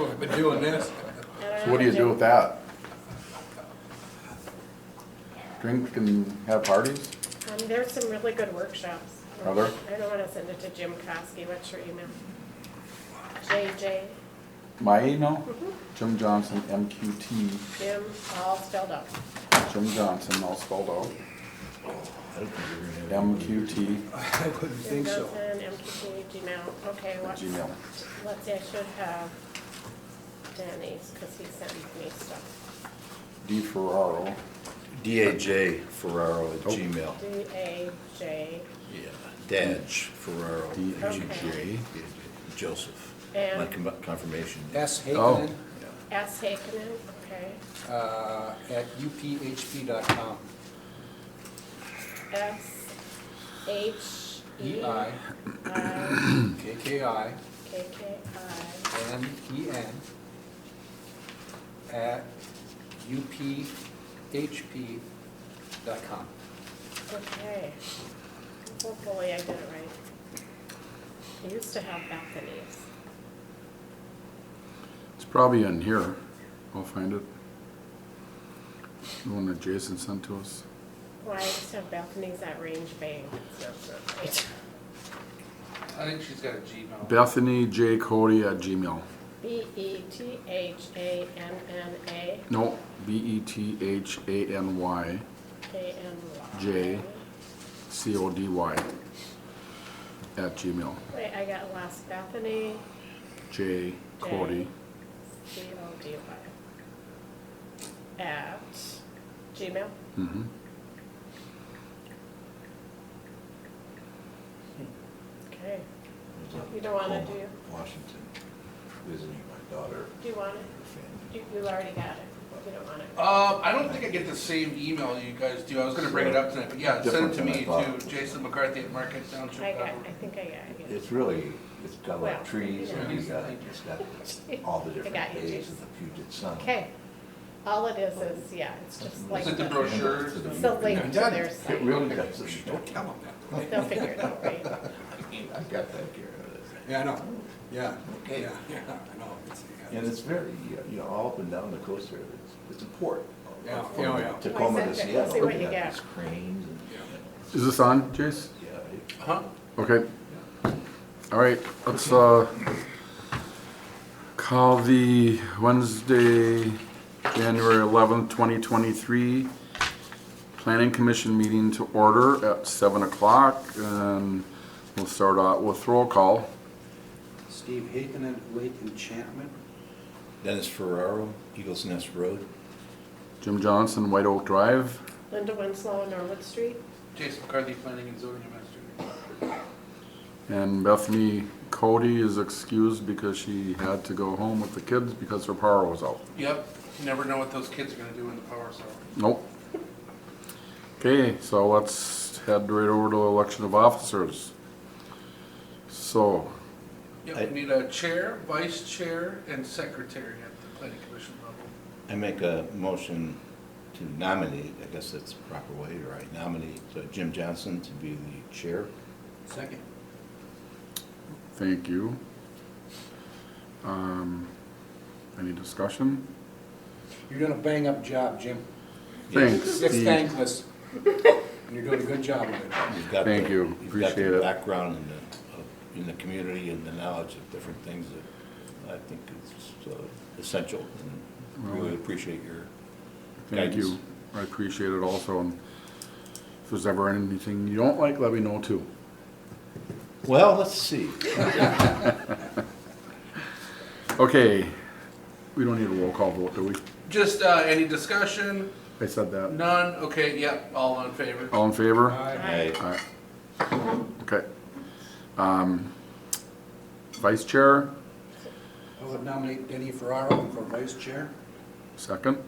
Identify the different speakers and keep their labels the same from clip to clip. Speaker 1: we've been doing this.
Speaker 2: I
Speaker 3: So what do you do
Speaker 2: know.
Speaker 3: with that? Drink and have parties?
Speaker 2: Um, there's some really good workshops.
Speaker 3: Are there?
Speaker 2: I don't wanna send it to Jim Kosky, what's your email? JJ,
Speaker 3: My email, Jim Johnson, MQT,
Speaker 2: Jim, all spelled out.
Speaker 3: Jim Johnson, all spelled out, MQT,
Speaker 1: I wouldn't
Speaker 2: Jim
Speaker 1: think so.
Speaker 2: Johnson, MQT, Gmail, okay,
Speaker 3: at
Speaker 2: what,
Speaker 3: Gmail.
Speaker 2: let's see, I should have Danny's, cause he sends me stuff.
Speaker 3: D Ferraro,
Speaker 4: DAJ Ferraro
Speaker 3: Oh.
Speaker 4: at Gmail.
Speaker 2: D A J,
Speaker 4: Yeah, Daj Ferraro. at
Speaker 3: D A
Speaker 4: Gmail.
Speaker 3: J.
Speaker 4: Joseph.
Speaker 2: And-
Speaker 4: My com- confirmation.
Speaker 1: S.
Speaker 3: Oh.
Speaker 1: Hakenin,
Speaker 2: S Hakenin, okay,
Speaker 1: uh, at uphp.com.
Speaker 2: S H E
Speaker 1: E I
Speaker 2: I
Speaker 1: K K I
Speaker 2: K K I
Speaker 1: N E N at uphp.com.
Speaker 2: Okay. Hopefully I did it right. I used to have balconies.
Speaker 3: It's probably in here. I'll find it. The one that Jason sent to us.
Speaker 2: Well, I used to have balconies at Range Bank. It's not so great.
Speaker 5: I think she's got a Gmail.
Speaker 3: Bethany J. Cody at Gmail.
Speaker 2: B E T H A N N A
Speaker 3: No, B E T H A N Y
Speaker 2: K N Y.
Speaker 3: J. C O D Y at Gmail.
Speaker 2: Wait, I got lost. Bethany,
Speaker 3: J. Cody.
Speaker 2: C O D Y. At Gmail.
Speaker 3: Mm-hmm.
Speaker 2: Okay. You don't want it, do you?
Speaker 4: Washington, visiting my daughter,
Speaker 2: Do you want it?
Speaker 4: her family.
Speaker 2: You, you already got it. You don't want it.
Speaker 5: Um, I don't think I get the same email you guys do. I was gonna bring it up tonight, but yeah,
Speaker 4: Different
Speaker 5: send it to
Speaker 4: than I
Speaker 5: me
Speaker 4: thought.
Speaker 5: to Jason McCarthy at Market Township. Uh,
Speaker 2: I got, I think I got it.
Speaker 6: It's really, it's got a lot
Speaker 2: Well,
Speaker 6: of trees, and it's
Speaker 5: yeah.
Speaker 6: got, it's got all the different
Speaker 2: got you,
Speaker 6: days
Speaker 2: Jason.
Speaker 6: of the Puget Sound.
Speaker 2: Okay, all it is is, yeah, it's just like,
Speaker 5: Is it the
Speaker 2: the-
Speaker 5: brochure?
Speaker 2: it's the link to their
Speaker 6: It
Speaker 2: site.
Speaker 6: really does,
Speaker 1: Don't tell them that.
Speaker 2: They'll figure it out, right?
Speaker 6: I got that here.
Speaker 1: Yeah, I know. Yeah.
Speaker 6: Okay.
Speaker 1: Yeah, yeah, I know. It's- yeah.
Speaker 6: And it's very, uh, you know, all up and down the coast there, it's, it's a port.
Speaker 1: Yeah,
Speaker 6: From
Speaker 1: yeah, yeah.
Speaker 6: Tacoma
Speaker 2: Well,
Speaker 6: to
Speaker 2: it's okay.
Speaker 6: Seattle,
Speaker 2: See what
Speaker 6: you
Speaker 2: you
Speaker 6: got
Speaker 2: get.
Speaker 6: these cranes and,
Speaker 1: Yeah.
Speaker 3: Is this on, Jace?
Speaker 6: yeah, it-
Speaker 5: Huh?
Speaker 3: Okay. All right, let's, uh, call the Wednesday, January eleventh, twenty twenty-three Planning Commission meeting to order at seven o'clock, and we'll start out with roll call.
Speaker 7: Steve Haken at Lake Enchantment.
Speaker 4: Dennis Ferraro, Eagles Nest Road.
Speaker 3: Jim Johnson, White Oak Drive.
Speaker 2: Linda Winslow, Norwood Street,
Speaker 5: Jason McCarthy, Planning and Zoning Administrator.
Speaker 3: And Bethany Cody is excused because she had to go home with the kids because her power was out.
Speaker 5: Yep, you never know what those kids are gonna do in the power cell.
Speaker 3: Nope. Okay, so let's head right over to election of officers. So,
Speaker 5: Yep, we need a chair, vice chair, and secretary at the planning commission level.
Speaker 4: I make a motion to nominate, I guess that's the proper way, or I nominate uh, Jim Johnson to be the chair.
Speaker 1: Second.
Speaker 3: thank you. Um, any discussion?
Speaker 1: You're doing a bang-up job, Jim.
Speaker 3: Thanks,
Speaker 1: It's
Speaker 3: Steve.
Speaker 1: thankless. And you're doing a good job of it.
Speaker 4: You've got
Speaker 3: Thank
Speaker 4: the-
Speaker 3: you.
Speaker 4: You've
Speaker 3: Appreciate
Speaker 4: got
Speaker 3: it.
Speaker 4: the background in the, of- in the community and the knowledge of different things that I think is uh, essential. and Really appreciate your
Speaker 3: Thank you.
Speaker 4: Guidance.
Speaker 3: I appreciate it also. And if there's ever anything you don't like, let me know too.
Speaker 4: Well, let's see.
Speaker 3: Okay, we don't need a roll call vote, do we?
Speaker 5: Just, uh, any discussion?
Speaker 3: I said that.
Speaker 5: None? Okay, yep, all in favor.
Speaker 3: All in favor?
Speaker 4: I-
Speaker 3: Aye. Okay. Um, Vice Chair,
Speaker 1: I would nominate Denny Ferraro for vice chair.
Speaker 3: second?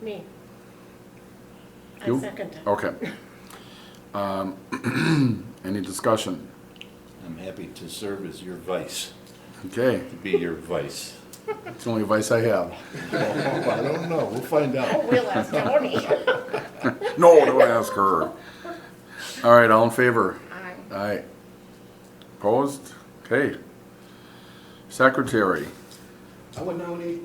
Speaker 2: me. I
Speaker 3: You? Oh.
Speaker 2: second it.
Speaker 3: Okay. Um, Any discussion?
Speaker 4: I'm happy to serve as your vice,
Speaker 3: Okay,
Speaker 4: to be your vice.
Speaker 3: it's the only advice I have.
Speaker 4: I don't know, we'll find
Speaker 2: Oh,
Speaker 4: out.
Speaker 2: we'll ask Tony.
Speaker 3: No, don't ask her. All right, all in favor?
Speaker 2: Aye.
Speaker 3: Aye. Opposed? Okay. Secretary,
Speaker 1: I would nominate